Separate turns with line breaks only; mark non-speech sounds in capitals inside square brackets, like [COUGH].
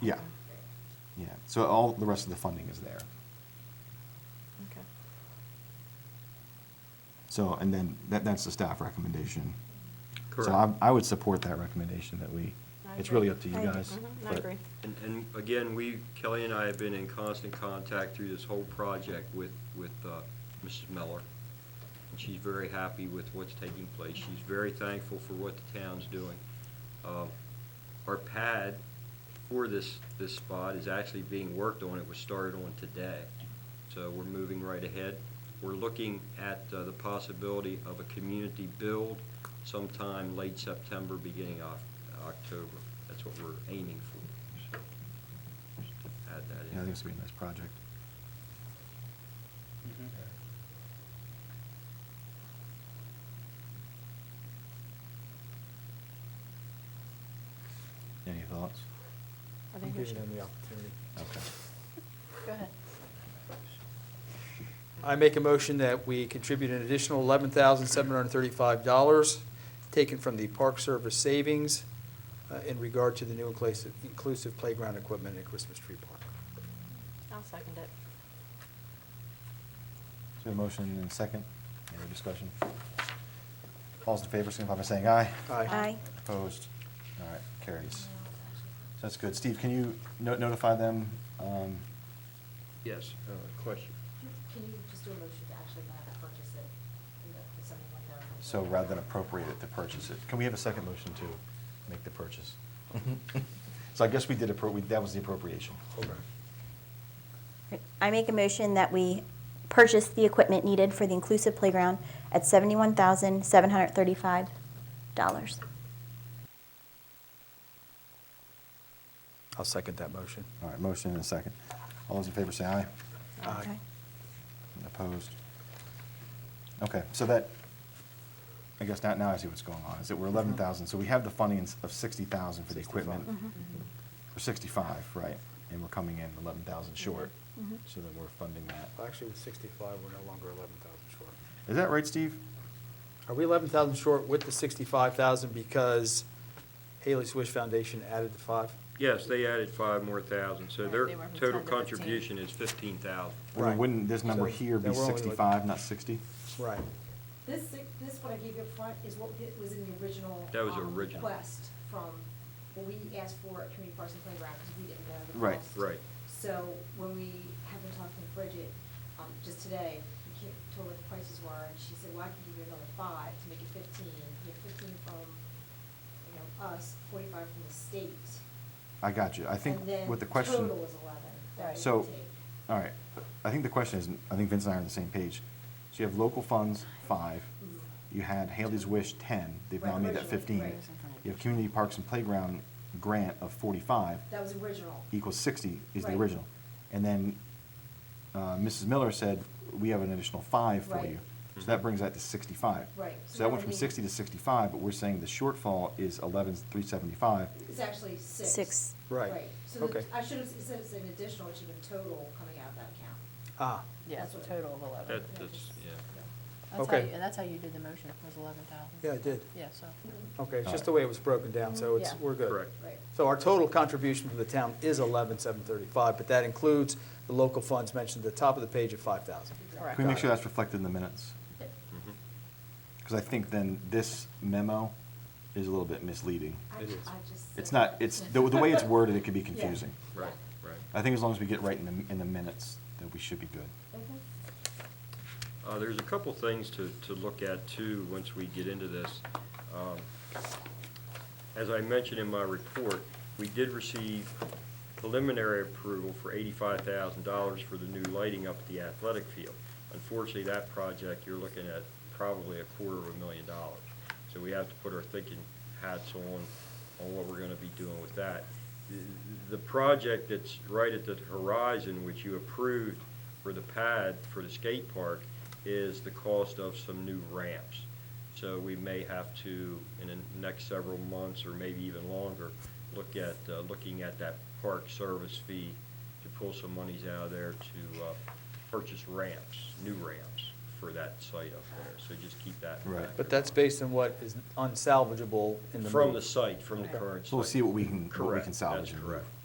Yeah. Yeah, so all, the rest of the funding is there.
Okay.
So, and then, that, that's the staff recommendation.
Correct.
So I, I would support that recommendation that we,
I
it's
agree.
really up to you
I-
guys.
mhm, I
but-
agree.
And, and again, we, Kelly and I have been in constant contact through this whole project with, with uh, Mrs. Miller. And she's very happy with what's taking place. She's very thankful for what the town's doing. Uh, Our pad for this, this spot is actually being worked on. It was started on today. So we're moving right ahead. We're looking at uh, the possibility of a community build sometime late September, beginning of October. That's what we're aiming for. So just Add that
Yeah,
in.
I think it's gonna be a nice project. Any thoughts?
I
I'm
think we
giving
should. [LAUGHS]
them the opportunity.
Okay.
Go ahead.
I make a motion that we contribute an additional eleven thousand seven hundred and thirty-five dollars taken from the Park Service savings uh, in regard to the new inclusive, inclusive playground equipment at Christmas Tree Park.
I'll second it.
So a motion and a second, any other discussion? All those in favor, signify by saying aye.
Aye.
Opposed? All right, carries. So that's good. Steve, can you no- notify them? um,
Yes, uh, question.
Can you just do a motion to actually have that purchase it, you know, for something like that?
So rather than appropriate it to purchase it, can we have a second motion to make the purchase? So I guess we did, appro- we- that was the appropriation.
I make a motion that we purchase the equipment needed for the inclusive playground at seventy-one thousand, seven hundred thirty-five dollars.
I'll second that motion.
All right, motion and a second. All those in favor say aye. Opposed? Okay, so that, I guess now, now I see what's going on, is that we're eleven thousand, so we have the funding of sixty thousand for the equipment.
Mm-hmm.
Mm-hmm.
Or sixty-five, right, and we're coming in eleven thousand short,
Mm-hmm.
Mhm.
so then we're funding that.
Actually, with sixty-five, we're no longer eleven thousand short.
Is that right, Steve?
Are we eleven thousand short with the sixty-five thousand because Haley Swish Foundation added the five?
Yes, they added five more thousand, so their
They went from 10
total
to 15.
contribution is fifteen thousand.
Or
Right.
Wouldn't this number
So
here be
then we're only looking-
sixty-five, not sixty?
Right.
This, si- this what I gave you up front is what it was in the original.
That was
um,
original.
Request from, what we asked for at Community Parks and Playground, because we didn't know the
Right,
cost.
right.
So when we have been talking with Bridget, um, just today, we can't, told her what the prices were, and she said, well, I can give you another five to make it fifteen, you have fifteen from, you know, us, forty-five from the state.
I got you, I think
And then
what the question.
Total was eleven. that
Right.
we
So,
could take.
all right, I think the question is, I think Vince and I are on the same page. So you have local funds, five.
Mhm.
You had Haley's Wish, ten. They've now
Right,
made that
originally,
fifteen.
right.
You have Community Parks and Playground grant of forty-five
That was original.
equals sixty is the
Right.
original. And then uh, Mrs. Miller said, we have an additional five for
Right.
you. So that brings that to sixty-five.
Right.
So that
So that
went
would
from
be-
sixty to sixty-five, but we're saying the shortfall is eleven, three seventy-five.
It's actually six.
Six.
Right.
So the-
Okay.
I should have, instead of saying additional, it should have been total coming out of that account.
Ah,
Yeah,
That's what-
total of eleven.
That- that's- yeah.
That's how,
Okay.
you- and that's how you did the motion, was eleven thousand.
yeah, I did.
Yeah, so.
Okay, it's
All
just
right.
the way it was broken down, so it's,
Yeah.
we're good.
Correct.
Right.
So our total contribution from the town is eleven seven thirty-five, but that includes the local funds mentioned at the top of the page at five thousand.
Correct.
Can we make
Got
sure
it.
that's reflected in the minutes?
Mhm.
Because I think then this memo is a little bit misleading.
I-
It is.
I just
It's
said-
not, it's, the, the way it's worded, it could be confusing.
Right, right.
I think as long as we get right in the, in the minutes, that we should be good.
Mhm.
Uh, There's a couple things to, to look at too, once we get into this. Um, As I mentioned in my report, we did receive preliminary approval for eighty-five thousand dollars for the new lighting up at the athletic field. Unfortunately, that project, you're looking at probably a quarter of a million dollars. So we have to put our thinking hats on, on what we're gonna be doing with that. The- The project that's right at the horizon, which you approved for the pad for the skate park, is the cost of some new ramps. So we may have to, in the next several months, or maybe even longer, look at, uh, looking at that park service fee to pull some monies out of there to uh, purchase ramps, new ramps for that site up there. So just keep that. in
Right.
mind.
But that's based on what is unsalvageable in the.
From
move.
the site, from the current site.
So we'll see what we can, what we
Correct.
can
That's
salvage. and move.
correct.